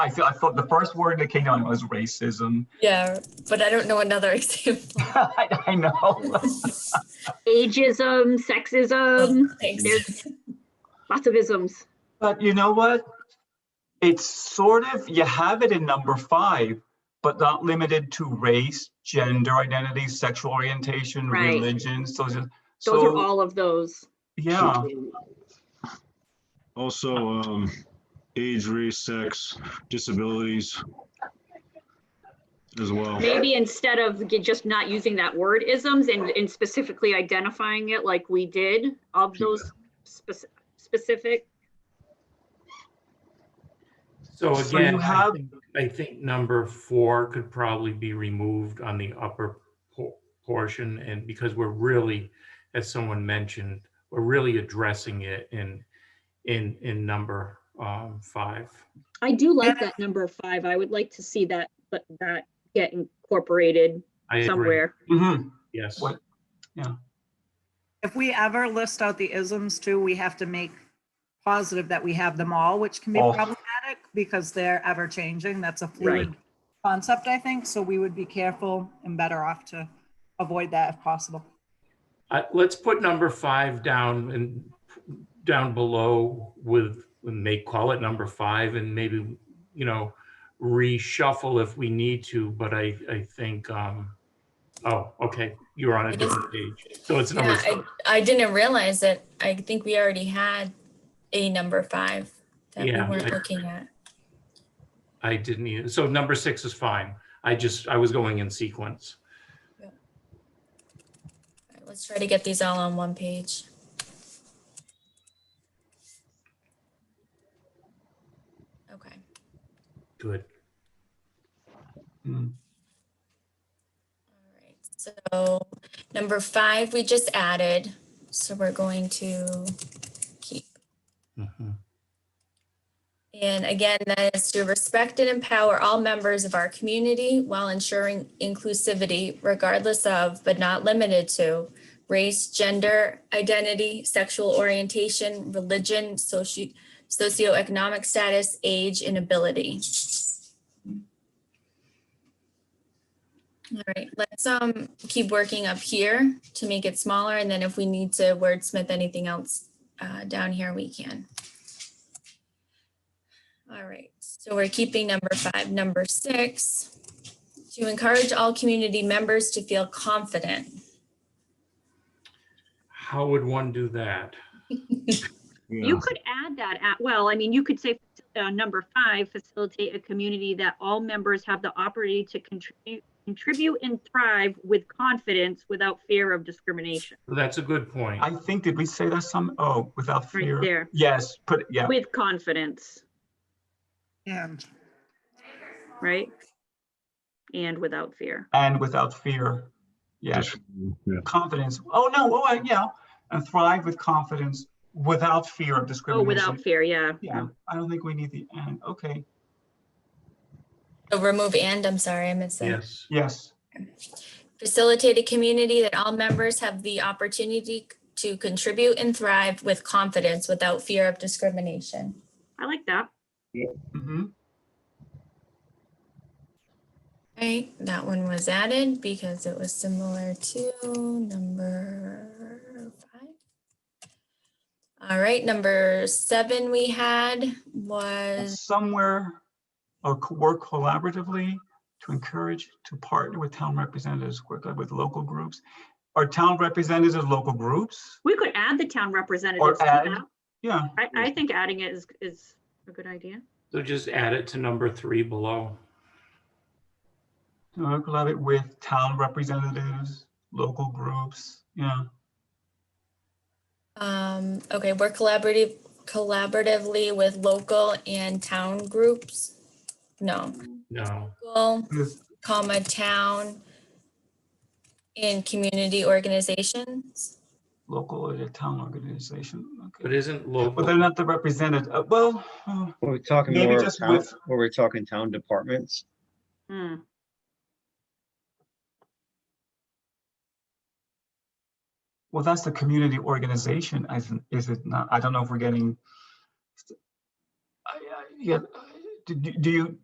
I feel I thought the first word that came to mind was racism. Yeah, but I don't know another example. I, I know. Ageism, sexism, Thanks. lots of isms. But you know what? It's sort of, you have it in number five, but not limited to race, gender identity, sexual orientation, Right. religion, social. Those are so, all of those. Yeah, Also, um, age, race, sex, disabilities as well. Maybe instead of ge- just not using that word isms and, and specifically identifying it like we did of those spec- specific, So So you again, I have- think, I think number four could probably be removed on the upper po- portion and because we're really, as someone mentioned, we're really addressing it in, in, in number um, five. I do like that number five. I would like to see that, but that get incorporated I agree, somewhere. hmm yes. What- If we ever list out the isms too, we have to make positive that we have them all, which can be Oh. problematic because they're ever changing. That's a fluid concept, I think. So we would be careful and better off to avoid that if possible. I- Let's put number five down and down below with, and they call it number five and maybe, you know, reshuffle if we need to, but I, I think, um, oh, okay, you're on a It is- different page. So it's number Yeah, I, five. I didn't realize that. I think we already had a number five that we Yeah, I- weren't looking at. I didn't either. So number six is fine. I just, I was going in sequence. All right, Let's try to get these all on one page. Okay. Good. All right, so number five, we just added, so we're going to keep. Mhm. And again, that is to respect and empower all members of our community while ensuring inclusivity regardless of, but not limited to, race, gender, identity, sexual orientation, religion, soci- socioeconomic status, age, and ability. All right, let's um keep working up here to make it smaller, and then if we need to wordsmith anything else uh, down here, we can. All right, so we're keeping number five, number six. To encourage all community members to feel confident. How would one do that? Yeah. You could add that at, well, I mean, you could say, uh, number five, facilitate a community that all members have the opportunity to contribute, contribute and thrive with confidence without fear of discrimination. That's a good point. I think, did we say that some, oh, without Right fear? there. Yes, put, yeah, With confidence, And right? And without fear. and without fear. Yes. Just- yeah. confidence. Oh no, oh uh, yeah, and thrive with confidence without fear of Oh, discrimination. without fear, yeah. Yeah, I don't think we need the and. Okay, So remove and, I'm sorry, I missed that. Yes. yes, Facilitate a community that all members have the opportunity to contribute and thrive with confidence without fear of discrimination. I like that. hmm Right, that one was added because it was similar to number five. All right, number seven we had was, somewhere, or co- work collaboratively to encourage to partner with town representatives, work with local groups. Are town representatives local groups? We could add the town representatives to add. that. Yeah, I, I think adding it is, is a good idea. So just add it to number three below. to work collaborate with town representatives, local groups. Yeah, um, okay, work collaborative, collaboratively with local and town groups. No, No. local, Yes. comma, town and community organizations. local or the town organization. But Okay, isn't but they're local, not the representative. uh, Well. uh, Were we talking Maybe more of just town, with- were we talking town departments? Hmm. Well, that's the community organization, isn't, is it not? I don't know if we're getting. I- I- Yeah, uh, do- do do you,